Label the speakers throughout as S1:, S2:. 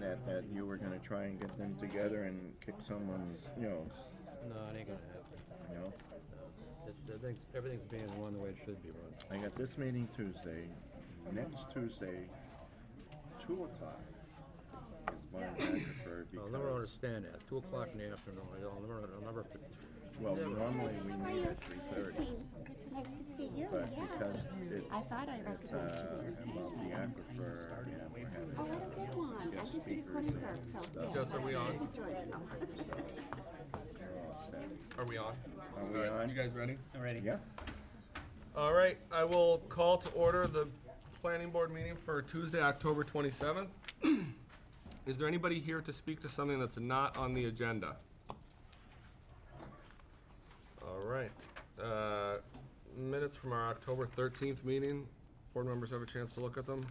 S1: That, that you were going to try and get them together and kick someone's, you know,
S2: No, it ain't gonna happen.
S1: you know.
S2: It- it- things- Everything's being run the way it should be run.
S1: I got this meeting Tuesday. Next Tuesday, two o'clock is my time for
S2: I'll never
S1: because
S2: understand that. Two o'clock in the afternoon, I'll never, I'll never.
S1: well,
S2: never-
S1: normally we
S3: How are
S1: meet
S3: you?
S1: at three thirty,
S3: Christine, nice to see you,
S1: but
S3: yeah.
S1: because it's uh,
S3: I thought I
S1: it's
S3: recognized
S1: uh,
S3: you.
S1: about the aquifer and we're
S3: Oh,
S1: having
S3: what a good one. I
S1: Guest
S3: just did a
S1: speakers
S3: recording
S1: there.
S3: clerk, so.
S1: That's-
S3: yeah,
S4: Jess, are we
S3: I
S4: on?
S3: get to join it now.
S1: they're all set.
S4: Are we on?
S1: Are we
S4: All right,
S1: on?
S4: You guys ready?
S5: Alrighty.
S1: Yeah.
S4: All right, I will call to order the planning board meeting for Tuesday, October 27th. Is there anybody here to speak to something that's not on the agenda? All right, uh, minutes from our October 13th meeting. Board members have a chance to look at them.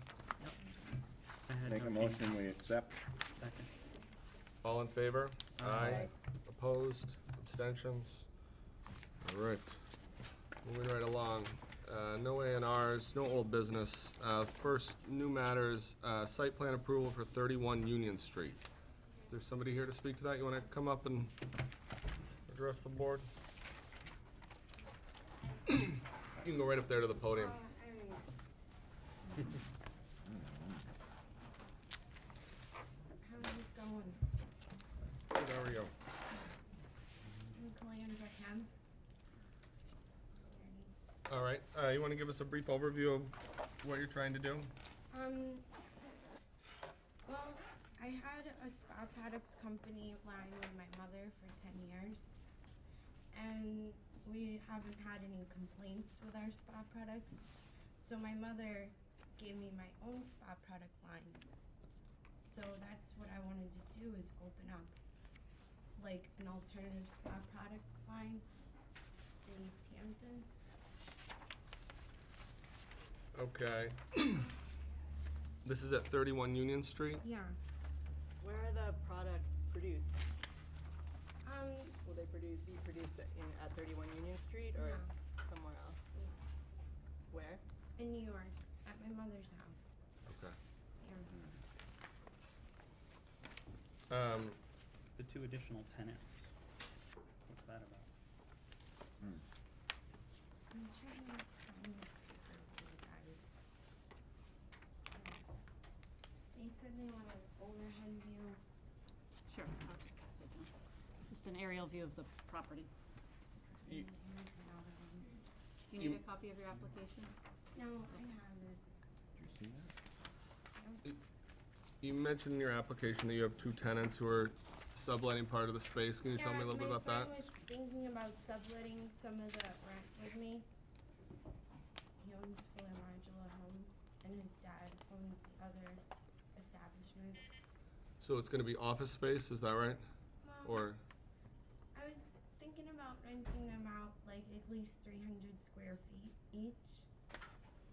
S5: I had
S1: Make a
S5: no change.
S1: motion, we accept.
S5: Second.
S4: All in favor? Aye. Opposed? Abstentions? All right. Moving right along. Uh, No A and Rs, no old business. Uh, First, new matters, uh, site plan approval for 31 Union Street. Is there somebody here to speak to that? You want to come up and address the board? You can go right up there to the podium.
S6: How is it going?
S4: There we go.
S6: I'm calling in as I can.
S4: All right, uh, you want to give us a brief overview of what you're trying to do?
S6: Um, well, I had a spa products company line with my mother for 10 years, and we haven't had any complaints with our spa products. So my mother gave me my own spa product line. So that's what I wanted to do is open up like an alternative spa product line in East Hampton.
S4: Okay. This is at 31 Union Street?
S6: Yeah.
S7: Where are the products produced?
S6: Um,
S7: Will they produce, be produced at- in, at thirty-one Union Street or
S6: No.
S7: somewhere else? Where?
S6: in New York at my mother's house.
S4: Okay.
S6: Yeah.
S4: Um,
S5: The two additional tenants. What's that about?
S1: Hmm,
S6: I'm trying to find this paper for you guys. Um, They said they wanted overhead view.
S8: Sure, I'll just pass it down. Just an aerial view of the property.
S4: y-
S6: and here's another one.
S8: Do you
S4: You-
S8: need a copy of your application?
S6: No, I have
S1: Do you see that?
S6: it.
S4: You mentioned in your application that you have two tenants who are subletting part of the space. Can you tell me a little bit about
S6: Yeah, my
S4: that?
S6: friend was thinking about subletting some of the rent with me. He owns Fuller Modular Homes and his dad owns the other establishment.
S4: So it's gonna be office space, is that right?
S6: Well,
S4: Or,
S6: I was thinking about renting them out like at least 300 square feet each.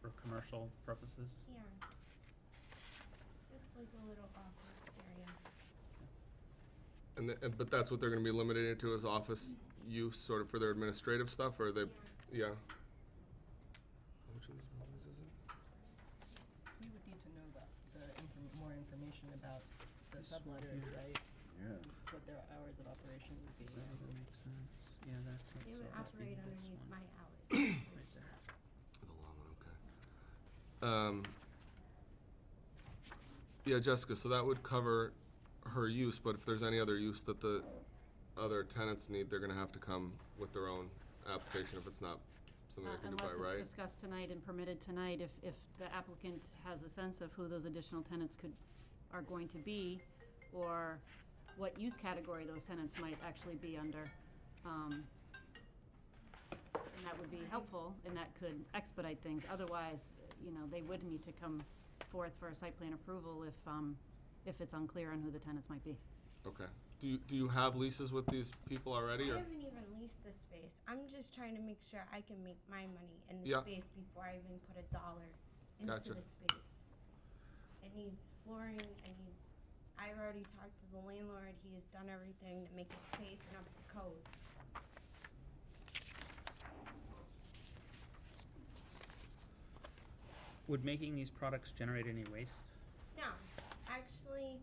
S5: For commercial purposes?
S6: Yeah. Just like a little office area.
S4: and, the- and- but that's what they're gonna be limited to is office use sort of for their administrative stuff or they, yeah? How much of this business is it?
S9: You would need to know that, the inform- more information about the subletters, right?
S1: Yeah.
S9: What their hours of operation would be.
S5: That would make sense. Yeah, that's it.
S6: They
S5: So
S6: would
S5: it must be
S6: operate
S5: this
S6: underneath
S5: one
S6: my hours.
S5: Right there.
S4: The long one, okay. Um, yeah, Jessica, so that would cover her use, but if there's any other use that the other tenants need, they're gonna have to come with their own application if it's not something
S8: Uh,
S4: they can do by
S8: Unless it's
S4: right.
S8: discussed tonight and permitted tonight, if, if the applicant has a sense of who those additional tenants could, are going to be, or what use category those tenants might actually be under. um, And that would be helpful, and that could expedite things. Otherwise, you know, they would need to come forth for a site plan approval if, um, if it's unclear on who the tenants might be.
S4: Okay. Do you, do you have leases with these people already
S6: I
S4: or?
S6: haven't even leased the space. I'm just trying to make sure I can make my money in the
S4: Yeah.
S6: space before I even put a dollar into
S4: Gotcha.
S6: the space. It needs flooring. It needs. I've already talked to the landlord. He has done everything to make it safe and up to code.
S5: Would making these products generate any waste?
S6: No, actually,